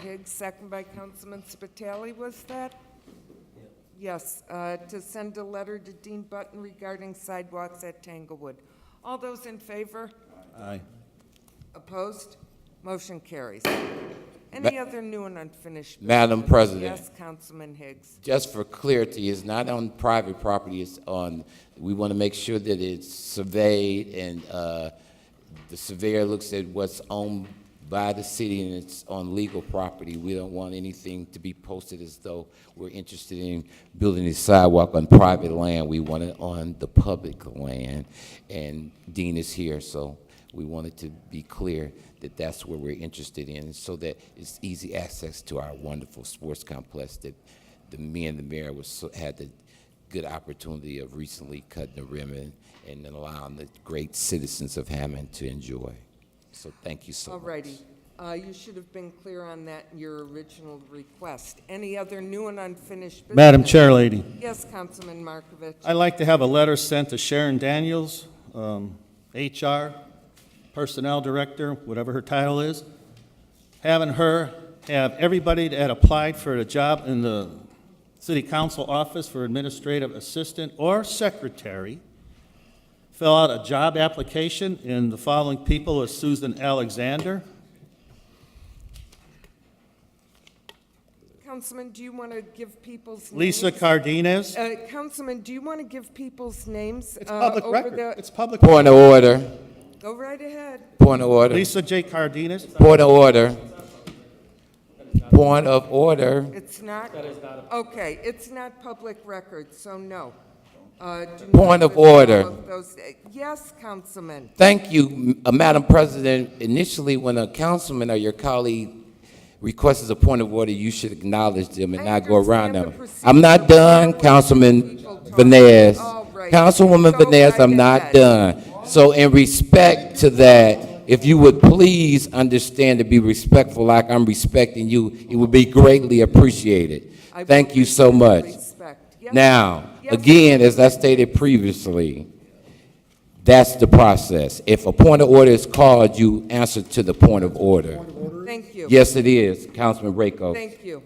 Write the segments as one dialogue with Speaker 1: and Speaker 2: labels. Speaker 1: Higgs, second by Councilman Spitali, was that? Yes, uh, to send a letter to Dean Button regarding sidewalks at Tanglewood. All those in favor?
Speaker 2: Aye.
Speaker 1: Opposed? Motion carries. Any other new and unfinished? business?
Speaker 3: Madam President,
Speaker 1: Yes, Councilman Higgs.
Speaker 3: just for clarity, it's not on private property, it's on, we want to make sure that it's surveyed and uh, the surveyor looks at what's owned by the city and it's on legal property. We don't want anything to be posted as though we're interested in building a sidewalk on private land. We want it on the public land. And Dean is here, so we wanted to be clear that that's where we're interested in so that it's easy access to our wonderful sports complex that the, me and the mayor was, so- had the good opportunity of recently cutting the ribbon and then allowing the great citizens of Hammond to enjoy. So thank you so
Speaker 1: All
Speaker 3: much.
Speaker 1: righty. Uh, You should have been clear on that in your original request. Any other new and unfinished business?
Speaker 2: Madam Chair Lady,
Speaker 1: Yes, Councilman Markovich.
Speaker 2: I'd like to have a letter sent to Sharon Daniels, um, HR, Personnel Director, whatever her title is, having her have everybody that applied for a job in the City Council Office for Administrative Assistant or Secretary fill out a job application, and the following people are Susan Alexander,
Speaker 1: Councilman, do you want to give people's names?
Speaker 2: Lisa Cardenas.
Speaker 1: Uh, Councilman, do you want to give people's names?
Speaker 2: It's
Speaker 1: uh,
Speaker 2: public
Speaker 1: over
Speaker 2: record.
Speaker 1: the-
Speaker 2: It's public.
Speaker 3: Point of order,
Speaker 1: Go right ahead.
Speaker 3: point of order,
Speaker 2: Lisa J. Cardenas.
Speaker 3: point of order. Point of order.
Speaker 1: It's not? That is not. Okay, it's not public record, so no. Uh, do not
Speaker 3: Point of
Speaker 1: list all
Speaker 3: order.
Speaker 1: of those- Yes, Councilman.
Speaker 3: Thank you, M- uh, Madam President. Initially, when a councilman or your colleague requests a point of order, you should acknowledge them and
Speaker 1: I
Speaker 3: not go around
Speaker 1: understand the
Speaker 3: them. I'm not
Speaker 1: procedure.
Speaker 3: done, Councilman
Speaker 1: People talk.
Speaker 3: Vanez.
Speaker 1: All right.
Speaker 3: Councilwoman
Speaker 1: Go
Speaker 3: Vanez,
Speaker 1: right
Speaker 3: I'm not
Speaker 1: ahead.
Speaker 3: done. So in respect to that, if you would please understand to be respectful like I'm respecting you, it would be greatly appreciated.
Speaker 1: I
Speaker 3: Thank you so
Speaker 1: will
Speaker 3: much.
Speaker 1: respect. Yes.
Speaker 3: Now,
Speaker 1: Yes.
Speaker 3: again, as I stated previously, that's the process. If a point of order is called, you answer to the point of order.
Speaker 1: Thank you.
Speaker 3: Yes, it is, Councilman Rako,
Speaker 1: Thank you.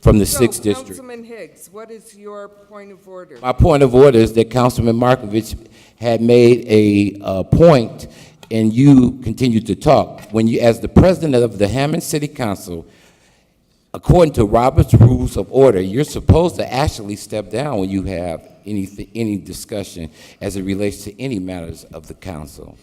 Speaker 3: from the
Speaker 1: So,
Speaker 3: Sixth District.
Speaker 1: Councilman Higgs, what is your point of order?
Speaker 3: My point of order is that Councilman Markovich had made a uh, point, and you continued to talk. When you, as the president of the Hammond City Council, according to Robert's Rules of Order, you're supposed to actually step down when you have anything, any discussion as it relates to any matters of the council.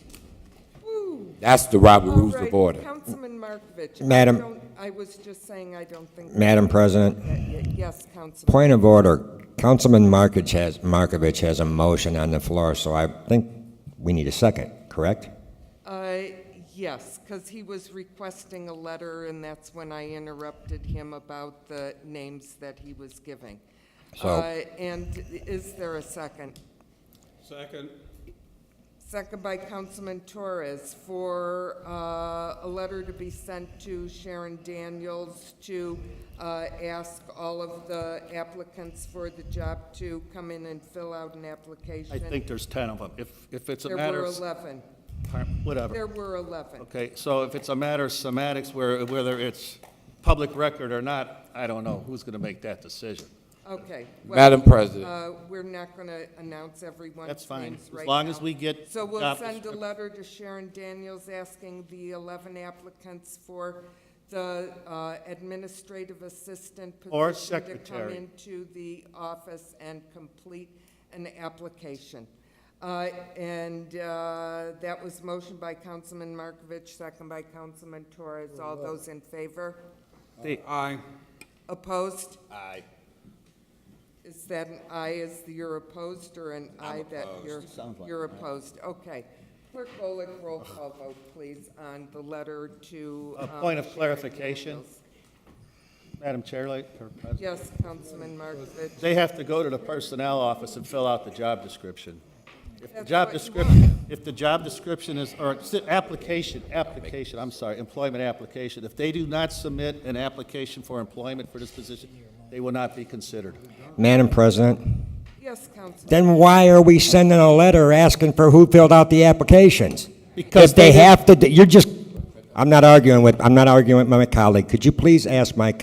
Speaker 3: That's the Robert Rules
Speaker 1: All right,
Speaker 3: of Order.
Speaker 1: Councilman Markovich. I
Speaker 4: Madam-
Speaker 1: don't- I was just saying, I don't think.
Speaker 4: Madam President.
Speaker 1: Yes, Councilman.
Speaker 4: Point of order, Councilman Markovich has, Markovich has a motion on the floor, so I think we need a second, correct?
Speaker 1: Uh, Yes, because he was requesting a letter, and that's when I interrupted him about the names that he was giving.
Speaker 4: So-
Speaker 1: Uh, And is there a second?
Speaker 5: Second.
Speaker 1: Second by Councilman Torres for uh, a letter to be sent to Sharon Daniels to uh, ask all of the applicants for the job to come in and fill out an application.
Speaker 2: I think there's 10 of them. If, if it's a
Speaker 1: There
Speaker 2: matter
Speaker 1: were
Speaker 2: of,
Speaker 1: 11.
Speaker 2: whatever.
Speaker 1: There were 11.
Speaker 2: Okay, so if it's a matter of semantics, where, whether it's public record or not, I don't know who's going to make that decision.
Speaker 1: Okay. well,
Speaker 3: Madam President,
Speaker 1: Uh, We're not going to announce everyone's
Speaker 2: That's fine,
Speaker 1: names right
Speaker 2: as long as
Speaker 1: now.
Speaker 2: we get.
Speaker 1: So we'll
Speaker 2: job
Speaker 1: send a
Speaker 2: descrip-
Speaker 1: letter to Sharon Daniels asking the 11 applicants for the uh, administrative assistant position.
Speaker 2: Or
Speaker 1: To come
Speaker 2: secretary.
Speaker 1: into the office and complete an application. Uh, And uh, that was motion by Councilman Markovich, second by Councilman Torres. All those in favor?
Speaker 5: Aye.
Speaker 1: Opposed? Aye. Is that an aye, is the you're opposed, or an aye that you're, you're opposed? Okay. Clerk Golick, roll call vote, please, on the letter to.
Speaker 2: A
Speaker 1: um,
Speaker 2: point of
Speaker 1: Sharon
Speaker 2: clarification.
Speaker 1: Daniels.
Speaker 2: Madam Chair, like, or President,
Speaker 1: Yes, Councilman Markovich.
Speaker 2: they have to go to the personnel office and fill out the job description. If the
Speaker 1: That's
Speaker 2: job
Speaker 1: what you
Speaker 2: description, if the job description is, or, si- application, application, I'm sorry, employment application, if they do not submit an application for employment for this position, they will not be considered.
Speaker 4: Madam President,
Speaker 1: Yes, Councilman.
Speaker 4: then why are we sending a letter asking for who filled out the applications?
Speaker 2: Because
Speaker 4: If they
Speaker 2: didn't-
Speaker 4: have to, do- you're just, I'm not arguing with, I'm not arguing with my colleague. Could you please ask my